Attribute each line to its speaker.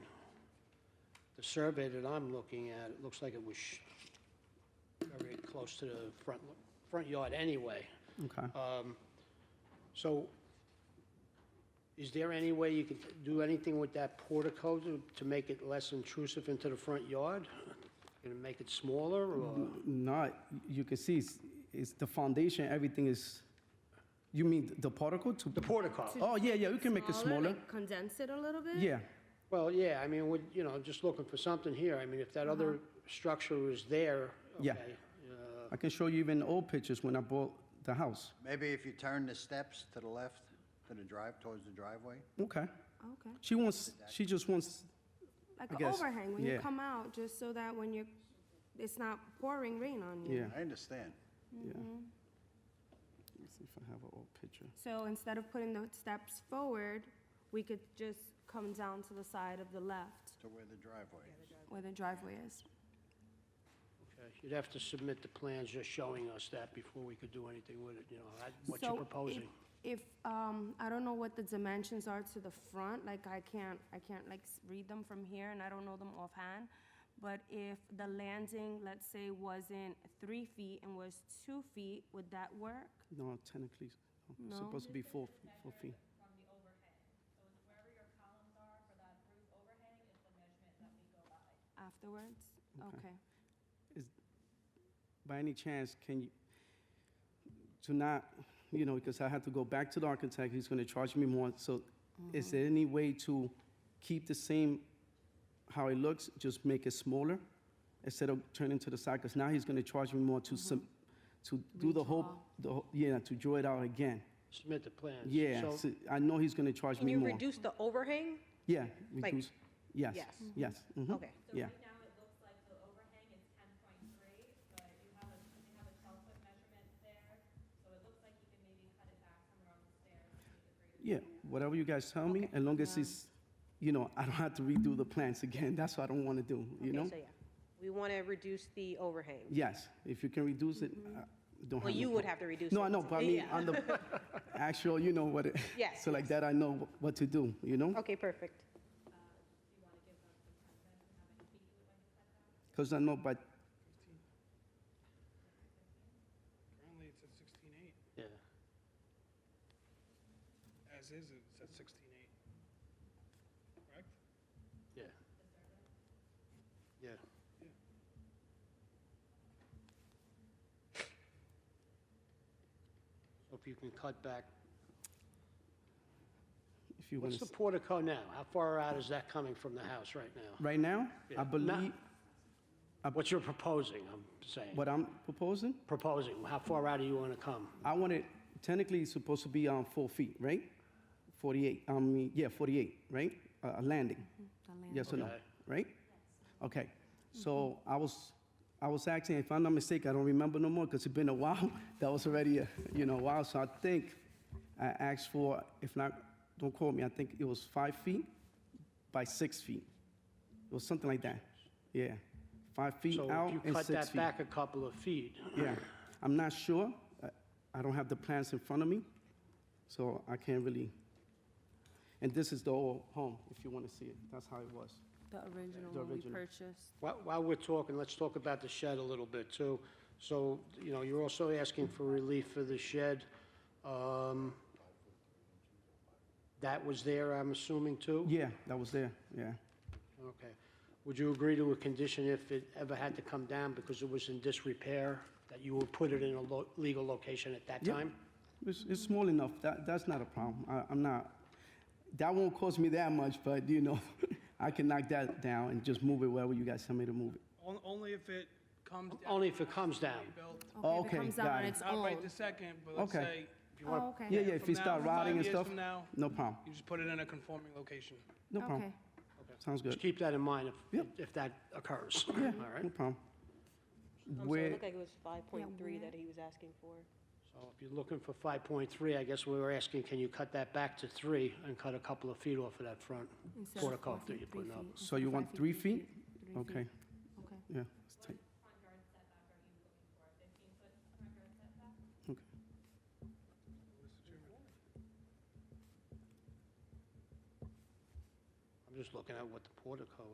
Speaker 1: The survey that I'm looking at, it looks like it was sh- very close to the front, front yard anyway.
Speaker 2: Okay.
Speaker 1: Um, So is there any way you could do anything with that portico to, to make it less intrusive into the front yard? Gonna make it smaller or?
Speaker 2: Not, you can see, it's, it's the foundation, everything is, you mean the particle to?
Speaker 1: The portico.
Speaker 2: Oh, yeah, yeah, we can make it smaller.
Speaker 3: like Condense it a little bit?
Speaker 2: Yeah,
Speaker 1: Well, yeah, I mean, we, you know, just looking for something here. I mean, if that other structure is there,
Speaker 2: Yeah.
Speaker 1: okay. uh,
Speaker 2: I can show you even old pictures when I bought the house.
Speaker 4: Maybe if you turn the steps to the left, to the drive, towards the driveway?
Speaker 2: Okay.
Speaker 3: Oh, Okay.
Speaker 2: She wants, she just wants,
Speaker 3: Like
Speaker 2: I
Speaker 3: an
Speaker 2: guess,
Speaker 3: overhang when you
Speaker 2: yeah.
Speaker 3: come out, just so that when you're, it's not pouring rain on you.
Speaker 2: yeah,
Speaker 4: I understand.
Speaker 2: yeah. Let's see if I have an old picture.
Speaker 3: So instead of putting the steps forward, we could just come down to the side of the left
Speaker 4: To where the driveway is.
Speaker 3: where the driveway is.
Speaker 1: Okay, Uh, You'd have to submit the plans just showing us that before we could do anything with it, you know, I- what
Speaker 3: So
Speaker 1: you're
Speaker 3: if-
Speaker 1: proposing.
Speaker 3: If, um, I don't know what the dimensions are to the front, like I can't, I can't like s- read them from here and I don't know them offhand. But if the landing, let's say, wasn't three feet and was two feet, would that work?
Speaker 2: No, technically, no, it's
Speaker 3: No.
Speaker 2: supposed to be four, four feet.
Speaker 5: from the overhang. So it's wherever your columns are for that roof overhang is the measurement that we go by.
Speaker 3: afterwards?
Speaker 2: Okay.
Speaker 3: Okay.
Speaker 2: By any chance, can you, to not, you know, because I have to go back to the architect, he's gonna charge me more, so is
Speaker 6: Mm-hmm.
Speaker 2: there any way to keep the same, how it looks, just make it smaller? Instead of turning to the side, because now he's gonna charge me more to
Speaker 6: Mm-hmm.
Speaker 2: some, to do the whole, the, whole- yeah, to draw it out again.
Speaker 1: Submit the plans.
Speaker 2: Yeah,
Speaker 1: So-
Speaker 2: so I know he's gonna charge
Speaker 6: Can
Speaker 2: me
Speaker 6: you
Speaker 2: more.
Speaker 6: reduce the overhang?
Speaker 2: Yeah,
Speaker 6: like-
Speaker 2: reduce, yes,
Speaker 6: Yes.
Speaker 2: yes, mhm,
Speaker 6: Okay.
Speaker 5: So
Speaker 2: yeah.
Speaker 5: right now, it looks like the overhang is ten point three, but you have a, you have a twelve foot measurement there. So it looks like you can maybe cut it back from around the stairs to make it three.
Speaker 2: Yeah, whatever you guys tell me, as long as
Speaker 6: Um,
Speaker 2: it's, you know, I don't have to redo the plans again, that's what I don't want to do, you
Speaker 6: Okay,
Speaker 2: know?
Speaker 6: so yeah. We want to reduce the overhang.
Speaker 2: Yes, if you can reduce it, I don't have.
Speaker 6: Mm-hmm. Well,
Speaker 2: no
Speaker 6: you would
Speaker 2: problem.
Speaker 6: have to reduce it.
Speaker 2: No, I know, but I mean,
Speaker 6: Yeah.
Speaker 2: on the actual, you know what it.
Speaker 6: Yes,
Speaker 2: So like that, I know wh- what to do, you know?
Speaker 6: Okay, perfect.
Speaker 2: Because I know, but,
Speaker 7: Currently, it's at sixteen eight.
Speaker 1: Yeah.
Speaker 7: As is, it's at sixteen eight. Correct?
Speaker 1: Yeah. Yeah. So if you can cut back,
Speaker 2: if you want
Speaker 1: what's the
Speaker 2: to,
Speaker 1: portico now? How far out is that coming from the house right now?
Speaker 2: right now,
Speaker 1: Yeah.
Speaker 2: I
Speaker 1: Ma-
Speaker 2: believe
Speaker 1: What you're proposing, I'm saying.
Speaker 2: what I'm proposing,
Speaker 1: Proposing, how far out do you want to come?
Speaker 2: I want it, technically, it's supposed to be on four feet, right? Forty-eight, I mean, yeah, forty-eight, right? A Mm-hmm. a landing. Mm-hmm.
Speaker 3: The land-
Speaker 2: Yes or no,
Speaker 1: Okay.
Speaker 2: right? Okay, so I was, I was asking, if I'm not mistaken, I don't remember no more, because it's been a while. That was already, a you know, a while, so I think I asked for, if not, don't quote me, I think it was five feet by six feet. It was something like that, yeah. Five feet out
Speaker 1: So if you
Speaker 2: and
Speaker 1: cut
Speaker 2: six
Speaker 1: that
Speaker 2: feet.
Speaker 1: back a couple of feet,
Speaker 2: Yeah, I'm not sure. I- I don't have the plans in front of me, so I can't really. And this is the old home, if you want to see it. That's how it was.
Speaker 3: The original
Speaker 2: The
Speaker 3: one we
Speaker 2: original. Oh,
Speaker 3: purchased.
Speaker 1: While while we're talking, let's talk about the shed a little bit, too. So, you know, you're also asking for relief for the shed. Um, That was there, I'm assuming, too?
Speaker 2: Yeah, that was there, yeah.
Speaker 1: Okay. Would you agree to a condition if it ever had to come down because it was in disrepair, that you would put it in a lo- legal location at that
Speaker 2: Yep.
Speaker 1: time?
Speaker 2: It's, it's small enough, that, that's not a problem. I, I'm not, that won't cost me that much, but you know, I can knock that down and just move it wherever you guys tell me to move it.
Speaker 7: On- Only if it comes down.
Speaker 1: Only if it comes
Speaker 7: to be
Speaker 1: down.
Speaker 7: built.
Speaker 3: Okay, if
Speaker 2: Okay,
Speaker 3: it comes out
Speaker 2: got
Speaker 3: on
Speaker 2: it.
Speaker 3: its
Speaker 7: Not
Speaker 3: own.
Speaker 7: right this second, but let's
Speaker 2: Okay.
Speaker 7: say. if you want-
Speaker 3: Oh, okay.
Speaker 2: Yeah, yeah, if
Speaker 7: from
Speaker 2: it
Speaker 7: now-
Speaker 2: start
Speaker 7: from five
Speaker 2: rotting and
Speaker 7: years
Speaker 2: stuff,
Speaker 7: from now,
Speaker 2: no problem,
Speaker 7: You just put it in a conforming location.
Speaker 2: no problem.
Speaker 3: Okay.
Speaker 2: Sounds
Speaker 1: Just
Speaker 2: good,
Speaker 1: keep that in mind if,
Speaker 2: Yep.
Speaker 1: if that occurs, all
Speaker 2: yeah,
Speaker 1: right?
Speaker 2: no problem.
Speaker 6: I'm sorry, it
Speaker 2: Where,
Speaker 6: looked like it was
Speaker 3: where-
Speaker 6: 5.3 that he was asking for.
Speaker 1: So if you're looking for 5.3, I guess we were asking, can you cut that back to 3 and cut a couple of feet off of that front
Speaker 3: Instead of
Speaker 1: portico
Speaker 3: four
Speaker 1: that
Speaker 3: feet,
Speaker 1: you're
Speaker 3: three
Speaker 1: putting up?
Speaker 3: feet.
Speaker 2: so
Speaker 3: Instead
Speaker 2: you
Speaker 3: of
Speaker 2: want
Speaker 3: five feet,
Speaker 2: three feet?
Speaker 3: three
Speaker 2: Okay,
Speaker 3: Okay.
Speaker 2: yeah, let's take-
Speaker 5: Front yard setback are you looking for? Fifteen foot front yard setback?
Speaker 2: okay.
Speaker 1: I'm just looking at what the portico